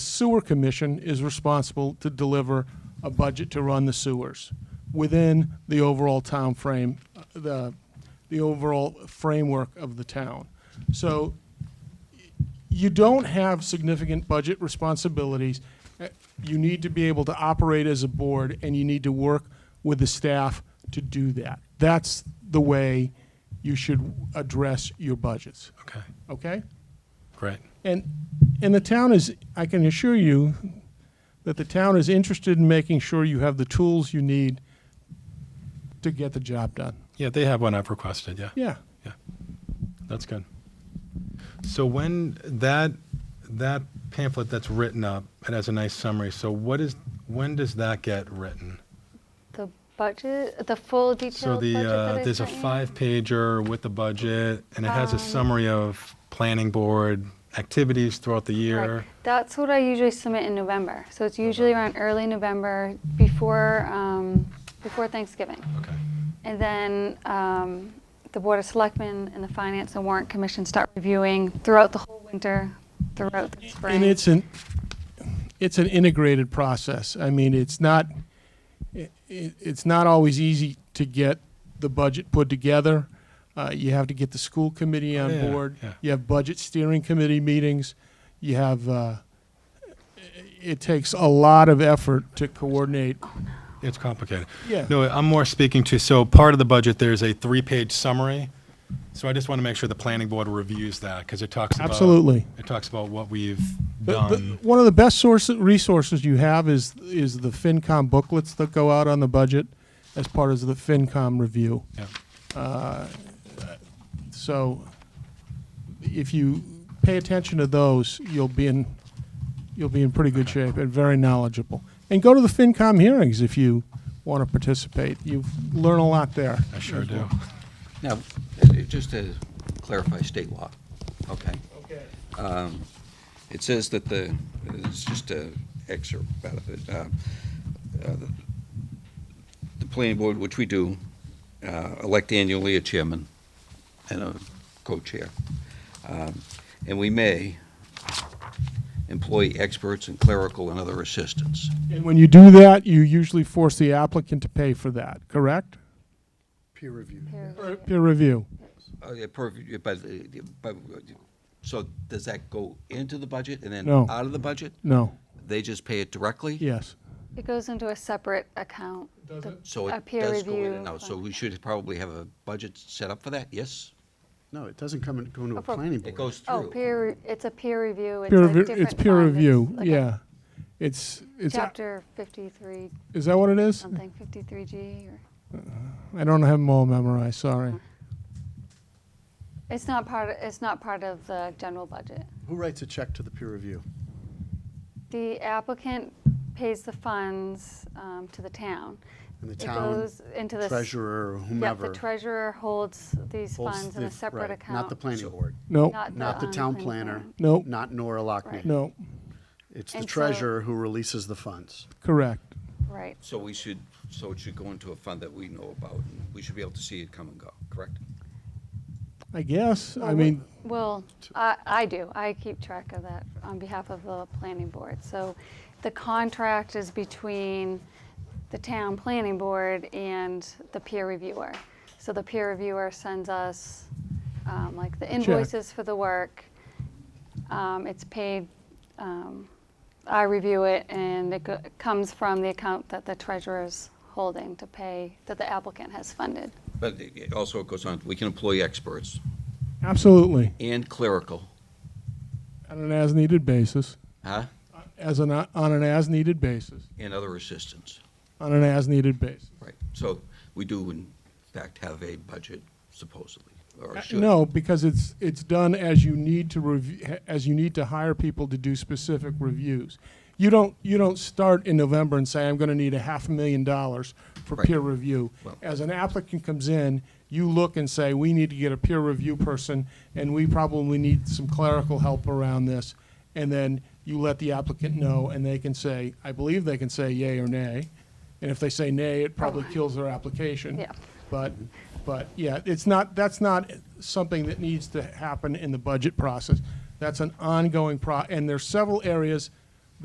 sewer commission is responsible to deliver a budget to run the sewers within the overall town frame, uh, the, the overall framework of the town. So you don't have significant budget responsibilities. Uh, You need to be able to operate as a board, and you need to work with the staff to do that. That's the way you should address your budgets, Okay, okay? great. And, and the town is, I can assure you that the town is interested in making sure you have the tools you need to get the job done. Yeah, they have one I've requested, yeah. Yeah. That's good. So when that, that pamphlet that's written up, it has a nice summary. So what is, when does that get written? The budget, the full So detailed the, budget that uh, I there's a sent you? five pager with the budget and it has a Um, summary of planning board activities throughout the Right. year. Uh-huh. That's what I usually submit in November. So it's usually around early November before, um, before Thanksgiving. Okay, And then um, the Board of Selectmen and the Finance and Warrant Commission start reviewing throughout the whole winter, throughout the spring. And it's an, it's an integrated process. I mean, it's not, i i- it's not always easy to get the budget put together. Uh, you have to get the school committee on Oh, Yeah, board. yeah. You have budget steering committee meetings. You have, uh, it takes a lot of effort to coordinate. it's complicated. Yeah. No, I'm more speaking to, so part of the budget, there's a three-page summary. So I just want to make sure the planning board reviews that because it talks about. Absolutely. It talks about what we've The- the- uh, done. One of the best source, resources you have is, is the FinCom booklets that go out on the budget as part of the FinCom review. Yeah, So if you pay attention to those, you'll be in, you'll be in pretty good shape and very knowledgeable. And go to the FinCom hearings if you want to participate. You learn a lot there. I sure as do. well. Now, it- it- just to clarify state law, okay? It says that the, it's just a excerpt out of it. uh, uh, The planning board, which we do, uh, elect annually a chairman and a co-chair. Um, And we may employ experts and clerical and other assistants. And when you do that, you usually force the applicant to pay for that, correct? Peer review. Peer Or Peer review. Uh, yeah, per- yeah, But, uh, but, uh, so does that go into the budget and then No. out of the budget? No, They just pay it directly? yes. It goes into a separate account. the- So a it peer does go in review and out, so fund. we should probably have a budget set up for that, yes? No, it doesn't come in, go into Oh, a for- planning It board. goes Oh, through. peer, re- it's a peer review. It's Peer a review, different it's peer fund. It's review, like a yeah. It's, it's, Chapter 53, is that what it is? something, 53G or. I don't have them all memorized, Uh-huh. sorry. It's not part, it's not part of the general budget. Who writes a check to the peer review? The applicant pays the funds um, to the town. And the It town goes into the s- treasurer or Yep, whomever? the treasurer holds these holds funds in the- a separate right, account. Not the planning board, No, not the um, town planning planner, board. no, not Nora Right. Lockney. no, It's the And so- treasurer who releases the funds. correct. Right. So we should, so it should go into a fund that we know about, and we should be able to see it come and go, correct? I guess, I Well, mean, Well, I, I do. I keep track of that on behalf of the planning board. So the contract is between the town planning board and the peer reviewer. So the peer reviewer sends us, um, like the invoices for the work. Um, it's paid, um, I review it and it go- comes from the account that the treasurer's holding to pay, that the applicant has funded. But it- it also it goes on, we can employ experts absolutely, and clerical, on an as-needed basis, Uh, huh, as an, on an as-needed basis, and other assistants, on an as-needed basis. right? So we do in fact have a budget supposedly, or Uh, should. No, because it's, it's done as you need to review, as you need to hire people to do specific reviews. You don't, you don't start in November and say, I'm gonna need a half a million dollars for Right. peer review. Well- As an applicant comes in, you look and say, we need to get a peer review person, and we probably need some clerical help around this. And then you let the applicant know, and they can say, I believe they can say yay or nay. And if they say nay, it probably kills their application. Yeah. But, but, yeah, it's not, that's not something that needs to happen in the budget process. That's an ongoing pro, and there's several areas